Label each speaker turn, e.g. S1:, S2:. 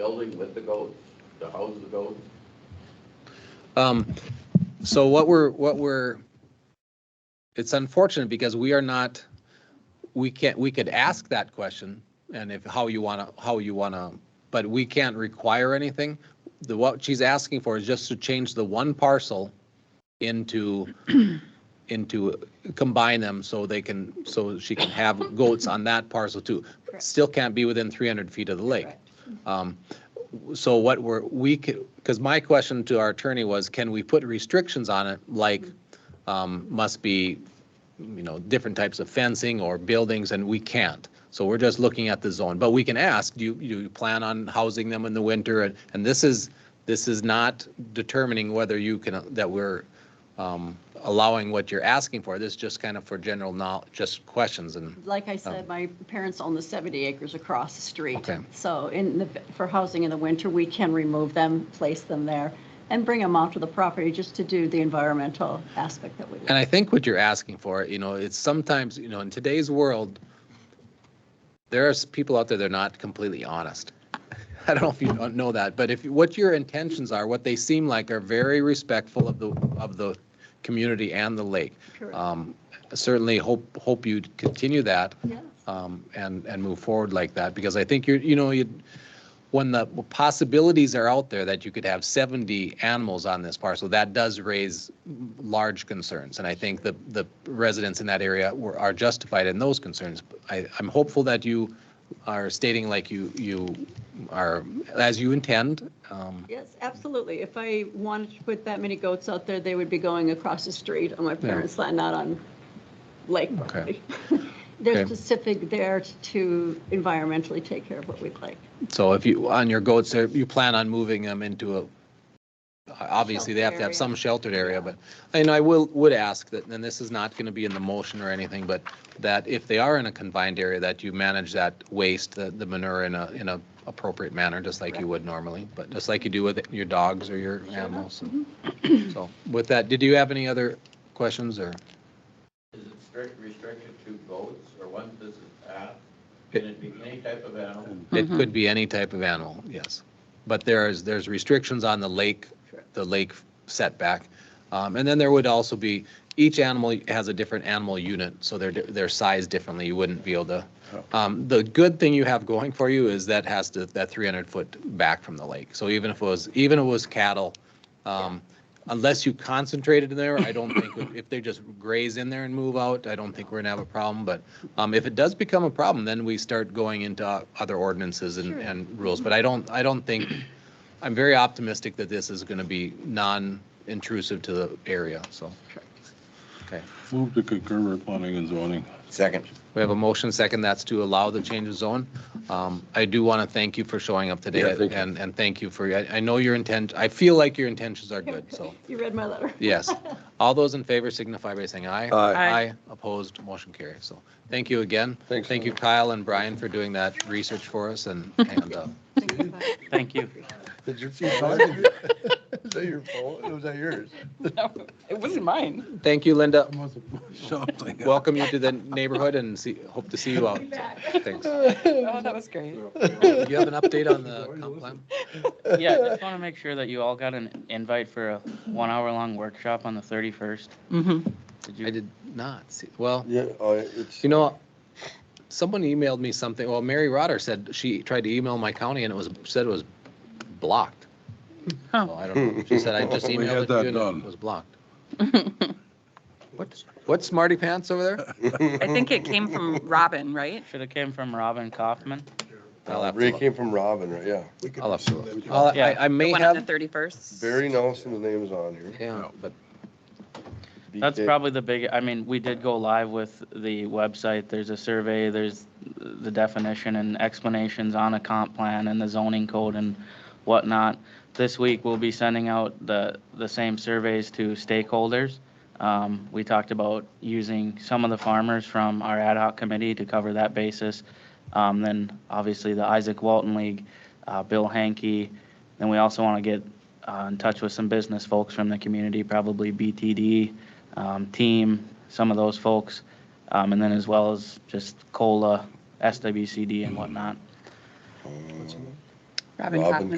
S1: building with the goat, to house the goat?
S2: Um, so what we're, what we're, it's unfortunate because we are not, we can't, we could ask that question and if, how you want to, how you want to, but we can't require anything. The, what she's asking for is just to change the one parcel into, into, combine them so they can, so she can have goats on that parcel too.
S3: Correct.
S2: Still can't be within 300 feet of the lake.
S3: Correct.
S2: Um, So what we're, we could, because my question to our attorney was, can we put restrictions on it, like,
S3: Mm-hmm.
S2: um, must be, you know, different types of fencing or buildings, and we can't. So we're just looking at the zone, but we can ask, do you, do you plan on housing them in the winter? And, and this is, this is not determining whether you can, that we're um, allowing what you're asking for. This is just kind of for general knowledge, just questions and,
S3: Like I said, my parents own the 70 acres across the street.
S2: Oh. Okay.
S3: So in the, for housing in the winter, we can remove them, place them there, and bring them onto the property just to do the environmental aspect that we.
S2: And I think what you're asking for, you know, it's sometimes, you know, in today's world, there are s- people out there that are not completely honest. I don't know if you don't know that, but if, what your intentions are, what they seem like are very respectful of the, of the community and the lake.
S3: Correct.
S2: Um, Certainly hope, hope you continue that
S3: Yes.
S2: um, and, and move forward like that, because I think you're, you know, you, when the possibilities are out there that you could have 70 animals on this parcel, that does raise large concerns. And I think the, the residents in that area were, are justified in those concerns. I, I'm hopeful that you are stating like you, you are, as you intend. um,
S3: Yes, absolutely. If I wanted to put that many goats out there, they would be going across the street on my parents' land, not on lake
S2: Okay.
S3: property. They're
S2: Okay.
S3: specific there to environmentally take care of what we'd like.
S2: So if you, on your goats, there- you plan on moving them into a, obviously, they have to have some sheltered area, but, and I will, would ask that, and this is not going to be in the motion or anything, but that if they are in a confined area, that you manage that waste, the, the manure in a, in a appropriate manner, just like you would normally, but just like you do with your dogs or your animals. So with that, did you have any other questions or?
S1: Is it strict restricted to goats, or once this is passed,
S2: can
S1: can it be any type of animal?
S2: It could be any type of animal, yes. But there is, there's restrictions on the lake, the lake setback. Um, And then there would also be, each animal has a different animal unit, so they're, they're sized differently. You wouldn't be able to. Um, The good thing you have going for you is that has to, that 300-foot back from the lake. So even if it was, even if it was cattle, um, unless you concentrated in there, I don't think, if they just graze in there and move out, I don't think we're gonna have a problem. But um, if it does become a problem, then we start going into other ordinances and,
S3: Sure.
S2: and rules. But I don't, I don't think, I'm very optimistic that this is gonna be non-intrusive to the area, so. Okay,
S4: Move to concur with planning and zoning.
S5: Second.
S2: we have a motion second, that's to allow the change of zone. Um, I do want to thank you for showing up
S4: Yeah,
S2: today
S4: thank you.
S2: and, and thank you for, I, I know your intent, I feel like your intentions are good, so.
S3: You read my letter.
S2: Yes. All those in favor signify by saying aye.
S4: Aye.
S6: Aye.
S2: Opposed, motion carries. So thank you again.
S4: Thanks.
S2: Thank you, Kyle and Brian, for doing that research for us and, and, uh,
S6: Thank you.
S7: Did your feet harden? Is that your fault? Oh, Was that yours?
S6: It wasn't mine.
S2: thank you, Linda.
S4: Something.
S2: Welcome you to the neighborhood and see, hope to see you out. So, Thanks.
S6: Oh, that was great.
S2: Do you have an update on the comp plan?
S6: Yeah, just want to make sure that you all got an invite for a one-hour-long workshop on the 31st.
S3: Mm-hmm.
S6: Did
S2: I
S6: you?
S2: did not see, well,
S7: Yeah, oh, it's.
S2: you know, someone emailed me something, well, Mary Rotter said she tried to email my county and it was, said it was blocked.
S6: Huh.
S2: So I don't know. She said, I just
S4: We
S2: emailed
S4: had
S2: it to
S4: that
S2: you and
S4: done.
S2: it was blocked. What, what smarty pants over there?
S8: I think it came from Robin, right?
S6: Should have came from Robin Kaufman.
S2: I'll have to
S7: Ray
S2: look.
S7: came from Robin, right? Yeah.
S2: I'll have to look. I'll- I, I may
S8: One on the
S2: have,
S8: 31st.
S7: Barry Nelson, the name's on here.
S2: yeah, but
S6: That's
S7: BK.
S6: probably the big, I mean, we did go live with the website. There's a survey, there's the definition and explanations on a comp plan and the zoning code and whatnot. This week, we'll be sending out the, the same surveys to stakeholders. Um, We talked about using some of the farmers from our ad hoc committee to cover that basis. Um, Then obviously the Isaac Walton League, uh, Bill Hankey. Then we also want to get uh, in touch with some business folks from the community, probably BTD, um, team, some of those folks, um, and then as well
S7: Um,
S6: as just COLA, SWCD and whatnot.
S8: Robin
S7: Robin
S8: Kaufman.